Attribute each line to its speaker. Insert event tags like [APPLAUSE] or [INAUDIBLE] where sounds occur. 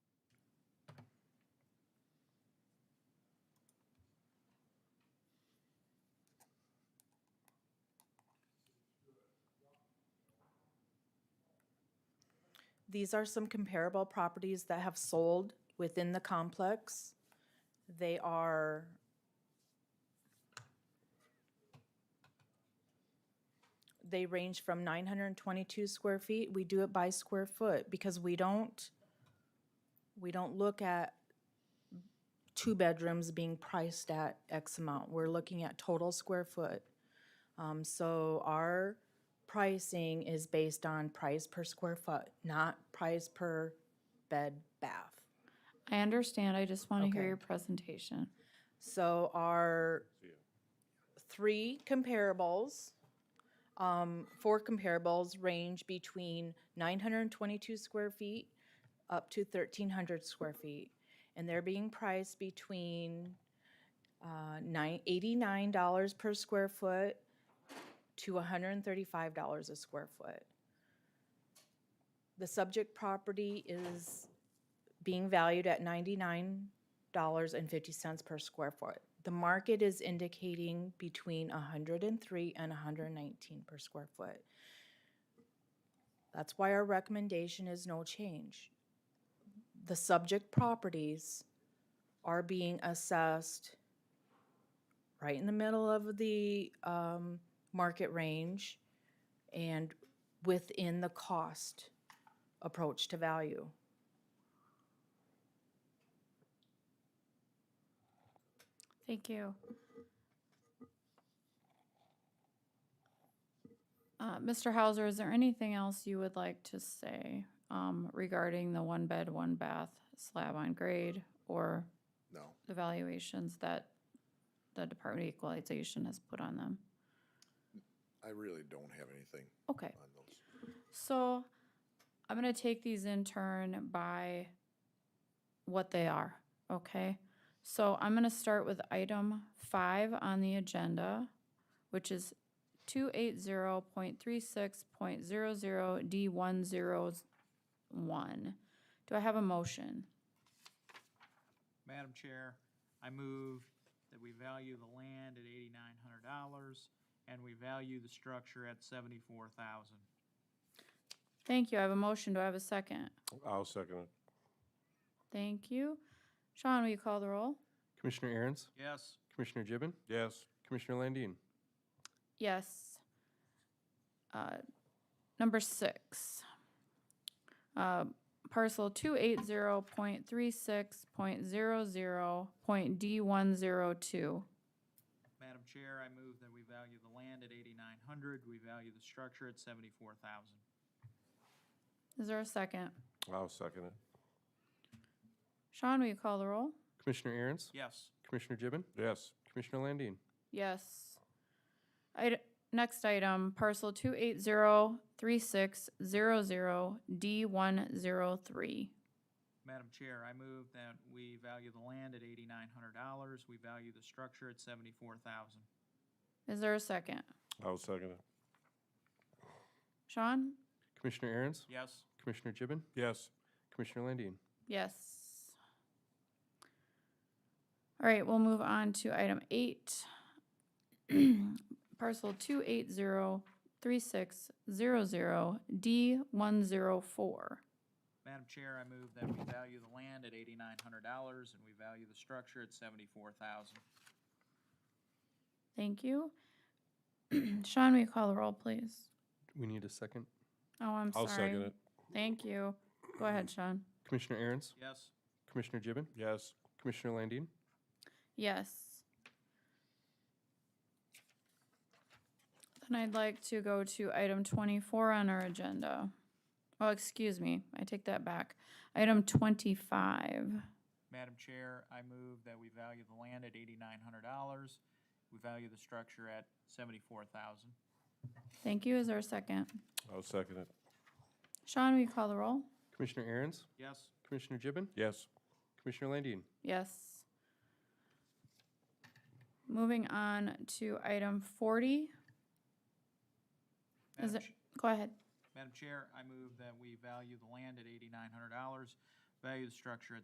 Speaker 1: These are some comparable properties that have sold within the complex. They are they range from nine hundred and twenty-two square feet. We do it by square foot because we don't we don't look at two bedrooms being priced at X amount. We're looking at total square foot. Um, so our pricing is based on price per square foot, not price per bed bath.
Speaker 2: I understand. I just want to hear
Speaker 1: Okay.
Speaker 2: your presentation.
Speaker 1: So our three comparables, um, four comparables range between nine hundred and twenty-two square feet up to thirteen hundred square feet. And they're being priced between, uh, nine, eighty-nine dollars per square foot to hundred and thirty-five dollars a square foot. The subject property is being valued at ninety-nine dollars and fifty cents per square foot. The market is indicating between hundred and three and hundred and nineteen per square foot. That's why our recommendation is no change. The subject properties are being assessed right in the middle of the um market range and within the cost approach to value.
Speaker 2: Thank you. Uh, Mr. Hauser, is there anything else you would like to say um, regarding the one bed, one bath slab on grade or
Speaker 3: No.
Speaker 2: the valuations that the Department of Equalization has put on them?
Speaker 3: I really don't have anything
Speaker 2: Okay.
Speaker 3: on those.
Speaker 2: So I'm gonna take these in turn by what they are, okay? So I'm gonna start with item five on the agenda, which is two eight zero point three six point zero zero D one zero one. Do I have a motion?
Speaker 4: Madam Chair, I move that we value the land at eighty-nine hundred dollars, and we value the structure at seventy-four thousand.
Speaker 2: Thank you. I have a motion. Do I have a second?
Speaker 5: I'll second it.
Speaker 2: Thank you. Sean, will you call the roll?
Speaker 6: Commissioner Aaron's,
Speaker 4: Yes,
Speaker 6: Commissioner Gibbon,
Speaker 5: Yes,
Speaker 6: Commissioner Landine,
Speaker 2: Yes. Uh, Number six. Uh, Parcel two eight zero point three six point zero zero point D one zero two.
Speaker 4: Madam Chair, I move that we value the land at eighty-nine hundred, we value the structure at seventy-four thousand.
Speaker 2: Is there a second?
Speaker 5: I'll second it.
Speaker 2: Sean, will you call the roll?
Speaker 6: Commissioner Aaron's,
Speaker 4: Yes,
Speaker 6: Commissioner Gibbon,
Speaker 5: Yes,
Speaker 6: Commissioner Landine,
Speaker 2: Yes. Id- next item, parcel two eight zero three six zero zero D one zero three.
Speaker 4: Madam Chair, I move that we value the land at eighty-nine hundred dollars, we value the structure at seventy-four thousand.
Speaker 2: Is there a second?
Speaker 5: I'll second it.
Speaker 2: Sean?
Speaker 6: Commissioner Aaron's,
Speaker 4: Yes,
Speaker 6: Commissioner Gibbon,
Speaker 5: Yes,
Speaker 6: Commissioner Landine.
Speaker 2: Yes. All right, we'll move on to item eight. [CLEARS THROAT] Parcel two eight zero three six zero zero D one zero four.
Speaker 4: Madam Chair, I move that we value the land at eighty-nine hundred dollars, and we value the structure at seventy-four thousand.
Speaker 2: Thank you. [CLEARS THROAT] Sean, will you call the roll, please?
Speaker 6: We need a second.
Speaker 2: Oh, I'm
Speaker 5: I'll second
Speaker 2: sorry.
Speaker 5: it.
Speaker 2: Thank you. Go ahead, Sean.
Speaker 6: Commissioner Aaron's,
Speaker 4: Yes,
Speaker 6: Commissioner Gibbon,
Speaker 5: Yes,
Speaker 6: Commissioner Landine,
Speaker 2: Yes. Then I'd like to go to item twenty-four on our agenda. Oh, excuse me, I take that back. Item twenty-five.
Speaker 4: Madam Chair, I move that we value the land at eighty-nine hundred dollars. We value the structure at seventy-four thousand.
Speaker 2: Thank you, is there a second?
Speaker 5: I'll second it.
Speaker 2: Sean, will you call the roll?
Speaker 6: Commissioner Aaron's,
Speaker 4: Yes,
Speaker 6: Commissioner Gibbon,
Speaker 5: Yes,
Speaker 6: Commissioner Landine,
Speaker 2: Yes. Moving on to item forty. Is
Speaker 4: Madam
Speaker 2: it,
Speaker 4: Ch-
Speaker 2: go ahead.
Speaker 4: Madam Chair, I move that we value the land at eighty-nine hundred dollars, value the structure at